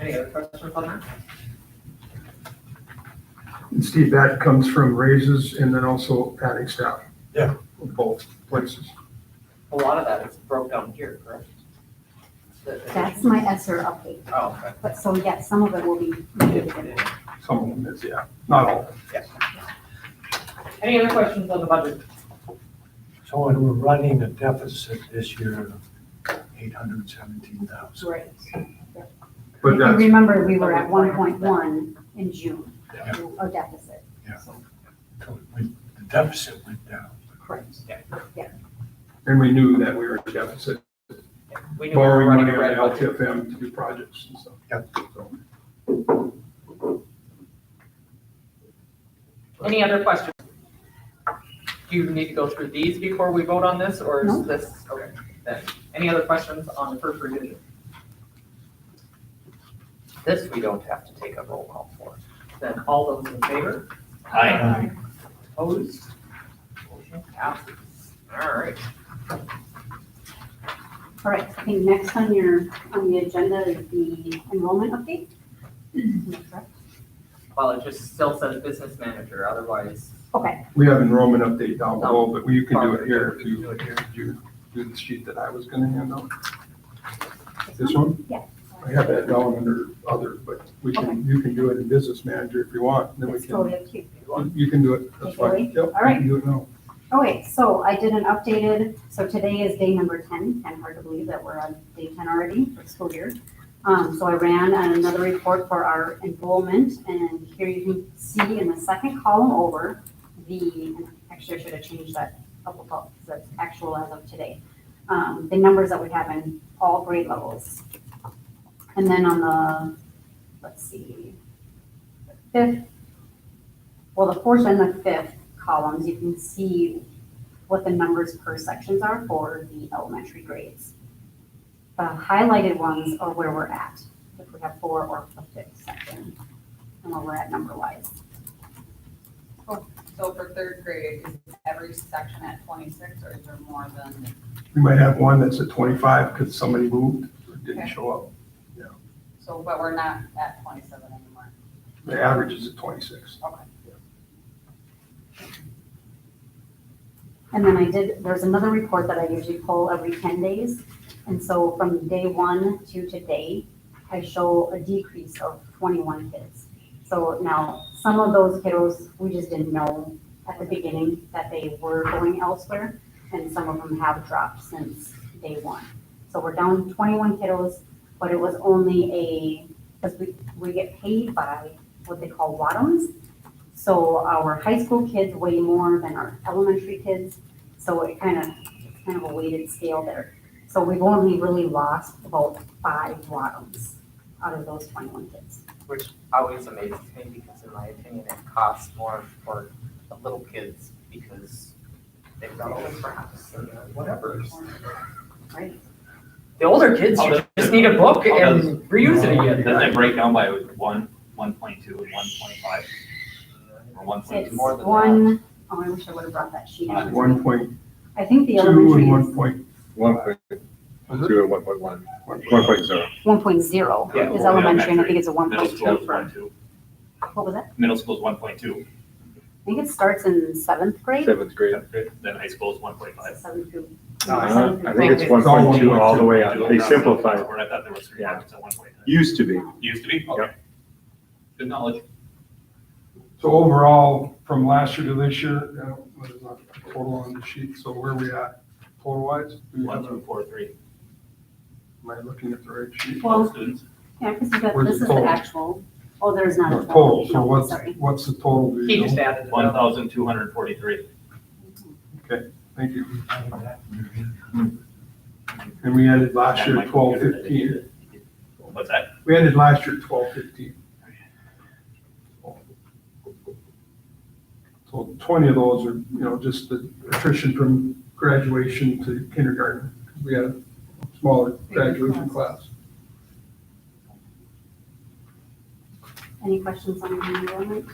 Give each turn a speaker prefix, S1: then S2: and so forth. S1: Any other questions on that?
S2: And Steve, that comes from raises and then also adding staff.
S3: Yeah.
S2: Both places.
S1: A lot of that is broke down here, correct? The- the-
S4: That's my ESER update,
S1: Oh, okay.
S4: but so yes, some of it will be reviewed.
S2: Some of them is, yeah, not all.
S1: Any other questions on the budget?
S3: So when we're running a deficit this year, eight hundred seventeen thousand.
S4: Right.
S2: But
S4: If you
S2: that's,
S4: remember, we were at one point one in June,
S3: Yeah.
S4: a deficit.
S3: The deficit went down.
S4: Correct.
S2: and we knew that we were in deficit,
S1: We knew we were
S2: borrowing
S1: running
S2: money
S1: a
S2: on
S1: red budget.
S2: LTFM to do projects and stuff. So,
S1: Any other questions? Do you need to go through these before we vote on this, or
S4: No.
S1: is this, okay, then, any other questions on the first revision? This we don't have to take a roll call for. Then all those in favor,
S3: Aye.
S1: opposed? Motion passes. All right,
S4: All right, I think next on your, on the agenda is the enrollment update. Correct?
S1: well, it just still says business manager, otherwise.
S4: Okay,
S2: We have enrollment update down
S4: Oh.
S2: below, but you can do it here if
S1: We can
S2: you,
S1: do it here.
S2: if you do the sheet that I was gonna hand out. This one?
S4: Yeah.
S2: I have that down under other, but we can, you can do it in business manager if you want, then we
S4: it's
S2: can.
S4: totally up to you.
S2: You can do it, that's
S4: Okay,
S2: fine.
S4: Joey?
S2: Yep, you
S4: All right.
S2: can do it now.
S4: Okay, Oh, so I did an updated, so today is day number ten, kind of hard to believe that we're on day ten already for school year. Um, so I ran another report for our enrollment, and here you can see in the second column over the, and actually I should have changed that up above, because that's actual as of today. Um, the numbers that we have in all grade levels. And then on the, let's see, the fifth, well, the fourth and the fifth columns, you can see what the numbers per sections are for the elementary grades. The highlighted ones are where we're at, if we have four or a fifth section, and where we're at number wise.
S5: So for third grade, is every section at twenty-six or is there more than?
S2: We might have one that's at twenty-five because somebody moved or didn't
S5: Okay.
S2: show up.
S5: So, but we're not at twenty-seven anymore.
S2: The average is at twenty-six.
S4: And then I did, there's another report that I usually pull every ten days. And so from day one to today, I show a decrease of twenty-one kids. So now, some of those kiddos, we just didn't know at the beginning that they were going elsewhere. And some of them have dropped since day one. So we're down twenty-one kiddos, but it was only a, because we, we get paid by what they call wadums. So our high school kids weigh more than our elementary kids, so it kind of, it's kind of a weighted scale there. So we've only really lost about five bottoms out of those twenty-one kids.
S1: Which always amazes me because in my opinion, it costs more for the little kids because they've got all this crafts and whatever.
S4: Right.
S1: The older kids
S6: How does-
S1: just need a book
S6: how
S1: and
S6: does-
S1: reuse it
S6: Does
S1: again.
S6: that break down by one, one point two and one point five, or one point
S4: It's
S6: two?
S1: more than that.
S4: one, oh, I wish I would have brought that sheet out.
S2: One point
S4: I think the
S2: two and
S4: elementary
S2: one
S4: is
S2: point, Uh-huh.
S7: One point two and one point one, one point zero.
S4: one point zero
S6: Yeah,
S4: is
S6: well,
S4: elementary, and I
S6: elementary.
S4: think it's a one
S6: Middle
S4: point
S6: school
S4: two
S6: is
S4: for,
S6: one two,
S4: what was that?
S6: middle school is one point two,
S4: I think it starts in seventh grade.
S7: Seventh grade.
S6: then high school is one point five.
S4: Seventh through-
S2: No, I
S7: Uh,
S4: seventh
S7: I
S4: through
S7: think it's
S4: ninth.
S7: one point two all the way up. They simplified.
S6: I thought there was three
S7: Yeah.
S6: points at one point.
S7: Used to be.
S6: Used to be, okay. Good knowledge.
S2: so overall, from last year to this year, uh, what is our total on the sheet, so where we at total wise?
S6: One, two, four, three.
S2: Am I looking at the right sheet?
S4: Well,
S6: Students,
S4: Yeah, because you got,
S2: Where's
S4: this
S2: the
S4: is the
S2: total?
S4: actual, oh, there's not
S2: No,
S4: a total,
S2: Total, so
S4: no,
S2: what's,
S4: sorry.
S2: what's the total? do you
S1: He just
S2: know?
S1: added it
S6: one
S1: up.
S6: thousand two hundred forty-three.
S2: Thank you.
S3: Aye.
S2: And we ended last year
S6: That
S2: at
S6: might
S2: twelve
S6: be good.
S2: fifteen.
S6: What's that?
S2: We ended last year at twelve fifteen. So twenty of those are, you know, just the attrition from graduation to kindergarten. We had a smaller graduation class.
S4: Any questions on the enrollment?